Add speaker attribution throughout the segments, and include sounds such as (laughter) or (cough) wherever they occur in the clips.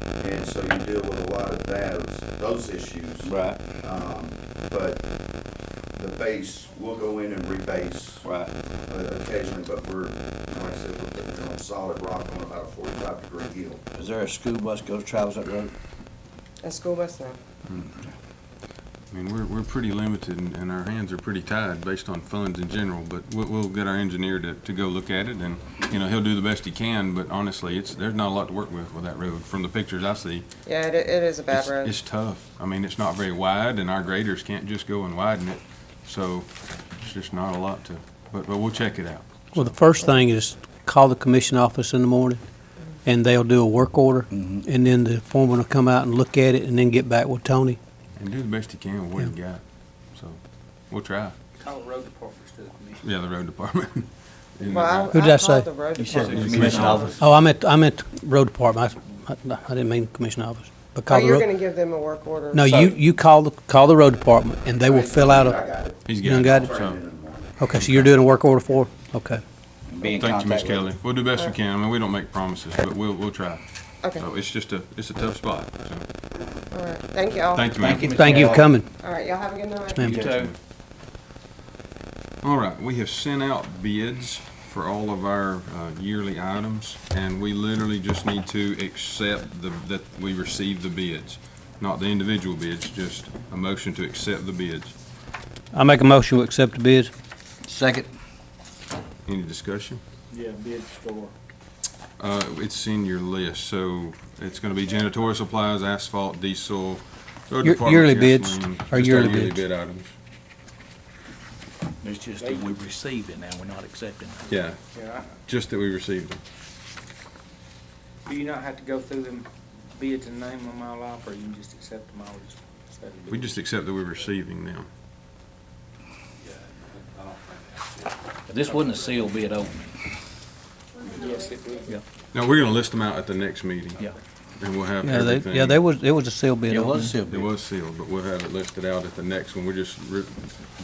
Speaker 1: and so you deal with a lot of those, those issues.
Speaker 2: Right,
Speaker 1: Um, but the base, we'll go in and rebase
Speaker 2: right.
Speaker 1: uh, occasionally, but we're, like I said, we're putting on solid rock on about a forty-five degree hill.
Speaker 2: Is there a school bus goes travels that road?
Speaker 3: A school bus now.
Speaker 4: I mean, we're, we're pretty limited and and our hands are pretty tied based on funds in general, but we'll, we'll get our engineer to, to go look at it and, you know, he'll do the best he can, but honestly, it's, there's not a lot to work with with that road. From the pictures I see,
Speaker 3: Yeah, it, it is a bad
Speaker 4: it's,
Speaker 3: road.
Speaker 4: it's tough. I mean, it's not very wide and our graders can't just go and widen it, so it's just not a lot to, but, but we'll check it out.
Speaker 5: Well, the first thing is call the commission office in the morning, and they'll do a work order,
Speaker 2: Mhm.
Speaker 5: and then the foreman will come out and look at it, and then get back with Tony.
Speaker 4: And do the best he can with what he got, so we'll try.
Speaker 6: Call the road departments to the commission.
Speaker 4: Yeah, the road department. (laughs) And,
Speaker 3: Well,
Speaker 5: Who did
Speaker 3: I
Speaker 5: I say?
Speaker 3: called the road
Speaker 2: You said the
Speaker 3: department.
Speaker 2: commission office.
Speaker 5: Oh, I meant, I meant road department. I, I- I didn't mean commission office. But
Speaker 3: Oh,
Speaker 5: call the
Speaker 3: you're
Speaker 5: road-
Speaker 3: gonna give them a work order.
Speaker 5: No, you, you call the, call the road department, and they will fill out
Speaker 1: I
Speaker 5: a,
Speaker 1: got it.
Speaker 4: He's
Speaker 5: You done got it?
Speaker 4: so-
Speaker 1: Turn in in the morning.
Speaker 5: okay, so you're doing a work order for, it? okay.
Speaker 2: Be in
Speaker 4: Thank you,
Speaker 2: contact
Speaker 4: Ms.
Speaker 2: with-
Speaker 4: Kelly. We'll do best we can. I mean, we don't make promises, but we'll, we'll try.
Speaker 3: Okay, all
Speaker 4: So it's just a, it's a tough spot. So,
Speaker 3: right. Thank y'all.
Speaker 4: thank
Speaker 2: Thank
Speaker 4: you, ma'am.
Speaker 2: you. Ms.
Speaker 5: Thank you for
Speaker 2: Kelly.
Speaker 5: coming.
Speaker 3: All right, y'all have a good night.
Speaker 5: ma'am.
Speaker 2: You too.
Speaker 4: All right, we have sent out bids for all of our uh, yearly items, and we literally just need to accept the, that we received the bids. Not the individual bids, just a motion to accept the bids.
Speaker 5: I make a motion to accept the bids.
Speaker 2: Second,
Speaker 4: Any discussion?
Speaker 6: Yeah, bid store.
Speaker 4: Uh, it's in your list, so it's gonna be janitorial supplies, asphalt, diesel, road
Speaker 5: Year-
Speaker 4: department
Speaker 5: yearly bids,
Speaker 4: gasoline,
Speaker 5: or
Speaker 4: just our
Speaker 5: yearly
Speaker 4: yearly
Speaker 5: bids?
Speaker 4: bid items.
Speaker 6: It's just that we receive it now, we're not accepting it.
Speaker 4: Yeah,
Speaker 7: Yeah,
Speaker 4: just that we received them.
Speaker 7: I- do you not have to go through them bids and name them all off, or you can just accept them all? as- as they
Speaker 4: We
Speaker 7: bid?
Speaker 4: just accept that we're receiving them.
Speaker 6: This wasn't a sealed bid opening.
Speaker 7: Yes, it would.
Speaker 4: No, we're gonna list them out at the next meeting.
Speaker 6: Yeah.
Speaker 4: And we'll have
Speaker 5: Yeah, they,
Speaker 4: everything.
Speaker 5: yeah, they was, it was a sealed bid.
Speaker 2: it was a
Speaker 5: opening.
Speaker 2: sealed
Speaker 4: It
Speaker 2: bid.
Speaker 4: was sealed, but we'll have it listed out at the next one. We're just, re-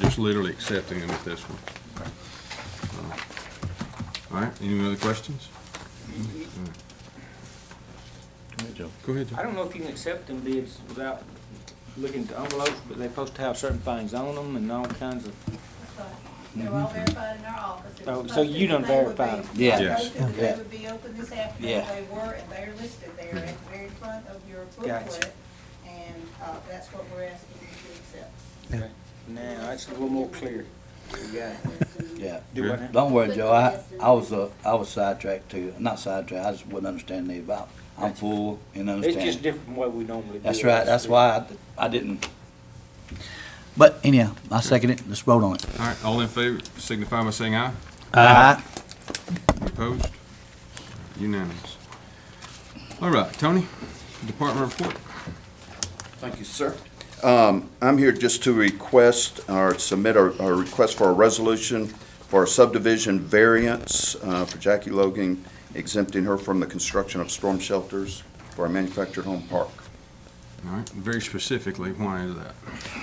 Speaker 4: just literally accepting them at this one. Uh, All right, any other questions? Go ahead,
Speaker 7: I
Speaker 4: John.
Speaker 7: don't know if you can accept them bids without looking at the envelopes, but they're supposed to have certain things on them and all kinds of,
Speaker 8: They're all verified in our office. It was
Speaker 7: Oh, so
Speaker 8: posted
Speaker 7: you done
Speaker 8: today would be-
Speaker 7: verified them.
Speaker 2: Yeah.
Speaker 4: Yes.
Speaker 8: Posted today
Speaker 2: Yeah.
Speaker 8: would be open this afternoon,
Speaker 2: Yeah.
Speaker 8: they were, and they're listed there at the very front of your
Speaker 7: Gotcha.
Speaker 8: booklet, and, uh, that's what we're asking you to accept.
Speaker 7: now, that's a little more clear. Yeah.
Speaker 2: yeah.
Speaker 7: Do what now?
Speaker 2: Don't worry, Joe, I, I was, uh, I was sidetracked too, not sidetracked, I just wouldn't understand the about, I'm full and
Speaker 7: It's just
Speaker 2: understand.
Speaker 7: different from what we normally do.
Speaker 2: That's right, that's why I, I didn't. But anyhow, I second it, let's vote on it.
Speaker 4: All right, all in favor, signify by saying aye.
Speaker 2: Aye.
Speaker 4: Opposed? Unanimous. All right, Tony, department report.
Speaker 1: Thank you, sir. Um, I'm here just to request or submit our, our request for a resolution for a subdivision variance, uh, for Jackie Logan exempting her from the construction of storm shelters for a manufactured home park.
Speaker 4: All right, very specifically, why is that?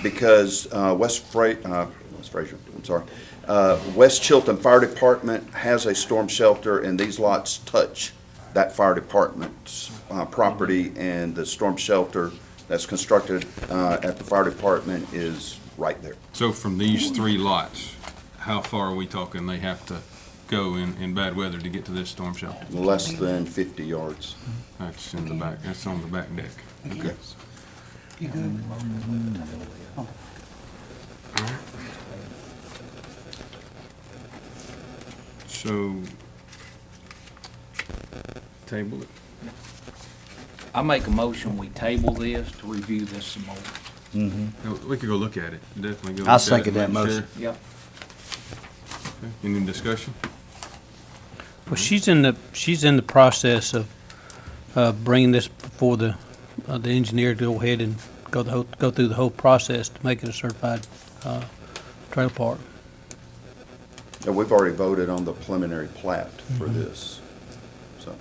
Speaker 1: Because, uh, West Fra- uh, West Fraser, I'm sorry, uh, West Chilton Fire Department has a storm shelter and these lots touch that fire department's, uh, property and the storm shelter that's constructed, uh, at the fire department is right there.
Speaker 4: So from these three lots, how far are we talking they have to go in, in bad weather to get to this storm shelter?
Speaker 1: Less than 50 yards.
Speaker 4: That's in the back, that's on the back deck. Okay. So, table it.
Speaker 6: I make a motion, we table this to review this some more.
Speaker 4: No, We could go look at it, definitely go.
Speaker 2: I'll
Speaker 4: look at it,
Speaker 2: second that
Speaker 4: make sure.
Speaker 2: motion.
Speaker 6: Yep.
Speaker 4: Okay. Any discussion?
Speaker 5: Well, she's in the, she's in the process of, uh, bringing this before the, uh, the engineer to go ahead and go the whole, go through the whole process to make it a certified, uh, trailer park.
Speaker 1: And we've already voted on the preliminary plat for this, so.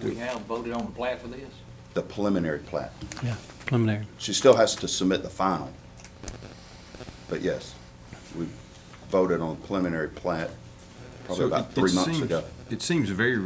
Speaker 6: Do we have voted on the plat for this?
Speaker 1: The preliminary plat.
Speaker 5: Yeah, preliminary.
Speaker 1: She still has to submit the final. But yes, we voted on preliminary plat probably
Speaker 4: So
Speaker 1: about
Speaker 4: it-
Speaker 1: three
Speaker 4: it
Speaker 1: months
Speaker 4: seems-
Speaker 1: ago.
Speaker 4: It seems very